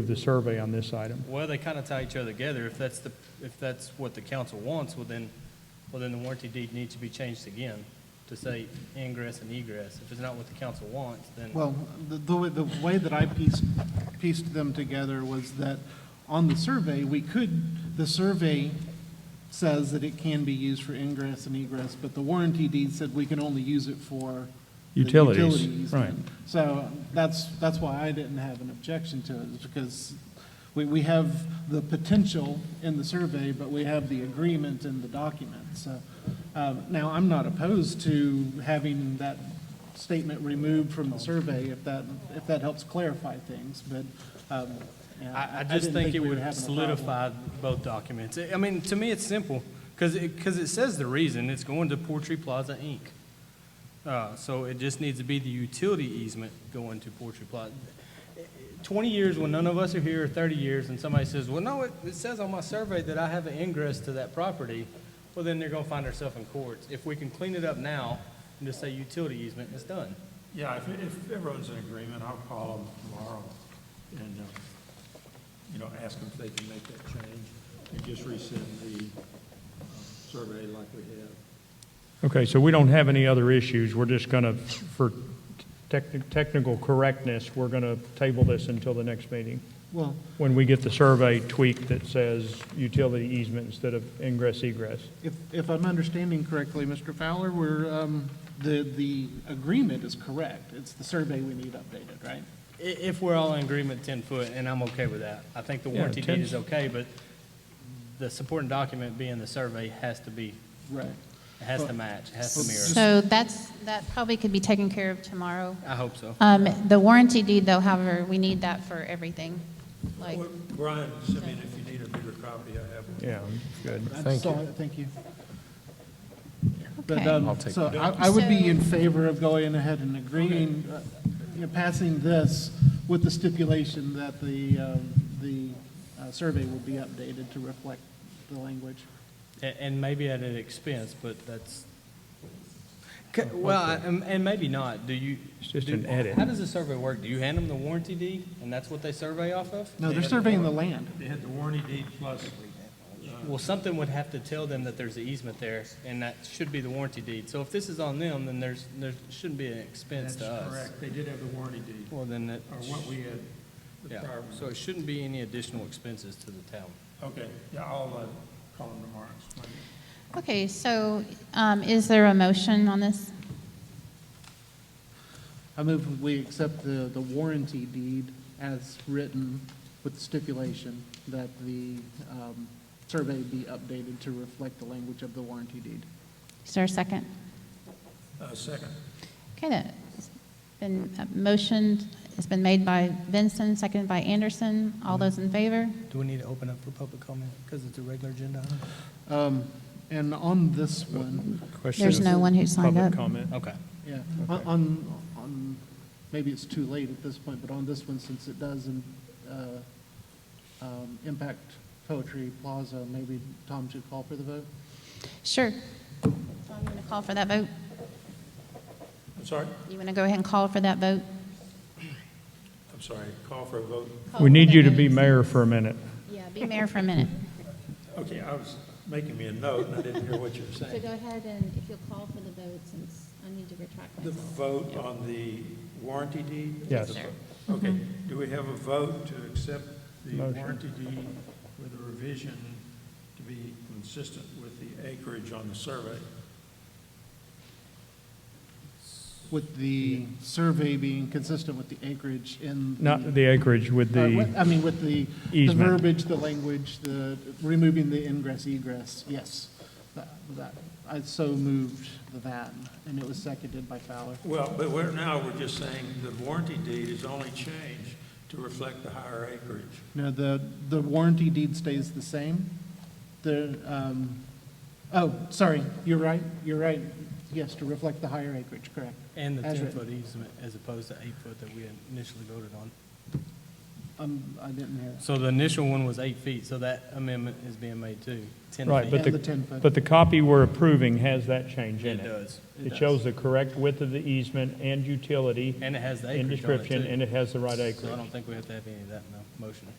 of the survey on this item. Well, they kind of tie each other together. If that's the, if that's what the council wants, well then, well then the warranty deed needs to be changed again to say ingress and egress. If it's not what the council wants, then, Well, the, the way, the way that I pieced, pieced them together was that on the survey, we could, the survey says that it can be used for ingress and egress, but the warranty deed said we can only use it for. the Utilities, utility easement. right. So that's, that's why I didn't have an objection to it, is because we, we have the potential in the survey, but we have the agreement in the document, so. um, Now, I'm not opposed to having that statement removed from the survey if that, if that helps clarify things, but, um, yeah, I, I just didn't think it we were would having a problem. solidify both documents. I I mean, to me, it's simple, because it, because it says the reason, it's going to Portree Plaza Inc. Uh, so it just needs to be the utility easement going to Portree Plaza. Twenty years when none of us are here, or thirty years, and somebody says, well, no, it, it says on my survey that I have an ingress to that property, well, then they're gonna find themselves in courts. If we can clean it up now and just say utility easement, it's done. Yeah, if, if everyone's in agreement, I'll call them tomorrow and, uh, you know, ask them if they can make that change and just resend the uh, survey like we had. Okay, so we don't have any other issues. We're just going to, for techni- technical correctness, we're going to table this until the next meeting, Well, when we get the survey tweak that says utility easement instead of ingress egress. if, if I'm understanding correctly, Mr. Fowler, we're, um, the, the agreement is correct. It's the survey we need updated, right? I- If we're all in agreement, 10 foot, and I'm okay with that. I think the Yeah, warranty 10 deed is okay, but the supporting document being the survey has to be, Right. has to match, has to mirror. So that's, that probably could be taken care of tomorrow. I hope so. Um, The warranty deed, though, however, we need that for everything. Like, Well, Brian, send me, if you need a bigger copy, I have one. Yeah, good. Thank you. Thank you. But, Okay. um, so I, I would be in favor of going ahead and agreeing, uh, you know, passing this with the stipulation that the, um, the uh, survey will be updated to reflect the language. A- And maybe at an expense, but that's, C- well, I- and and maybe not. Do you? It's just do- an edit. How does the survey work? Do you hand them the warranty deed, and that's what they survey off of? No, they're surveying the land. They had the warranty deed plus, Well, something would have to tell them that there's an easement there, and that should be the warranty deed. So if this is on them, then there's, there shouldn't be an expense that's to us. correct, they did have the warranty deed, Well, then that. or what we had, the Yeah, prior so one. it shouldn't be any additional expenses to the town. Okay, yeah, I'll, uh, call them tomorrow. and explain it. okay, so um, is there a motion on this? I move we accept the, the warranty deed as written with the stipulation that the, um, survey be updated to reflect the language of the warranty deed. Is there a second? Uh, second, Okay, that's been uh, motioned, it's been made by Vincent, seconded by Anderson. All those in favor? Do we need to open up for public comment because it's a regular agenda item? Um, and on this one, There's no one who signed up. Public comment. Okay. yeah, on- on, on, maybe it's too late at this point, but on this one, since it does, uh, um, impact Poetry Plaza, maybe Tom should call for the vote? Sure. So I'm going to call for that vote. I'm sorry, You want to go ahead and call for that vote? I'm sorry, call for a vote. Call We need for you the to be vote. mayor for a minute. Yeah, be mayor for a minute. Okay, I was making me a note, and I didn't hear what you were So saying. go ahead and if you'll call for the vote, since I need to retract The myself. vote on the warranty deed? Yes. Okay, do we have a vote to accept the Motion. warranty deed with a revision to be consistent with the acreage on the survey? With the survey being consistent with the acreage in. the- Not the acreage with Uh, with- the, I mean, with the, the Easement. verbiage, the language, the, removing the ingress egress, yes. That, that- I so moved that, and it was seconded by Fowler. Well, but we're, now we're just saying the warranty deed is only changed to reflect the higher acreage. No, the, the warranty deed stays the same. The, um, oh, sorry, you're right, you're right. Yes, to reflect the higher acreage, correct. And the As written. ten-foot easement as opposed to eight-foot that we initially voted on. I'm, Um, I didn't hear. So the initial one was eight feet, so that amendment is being made too, 10 feet. Right, but And the 10 the, foot. but the copy we're approving has that change in It it. does. It shows the correct width of the easement and utility. And it has the and acreage on it, description, too. And it has the right So I acreage. don't think we have to have any of that in the motion.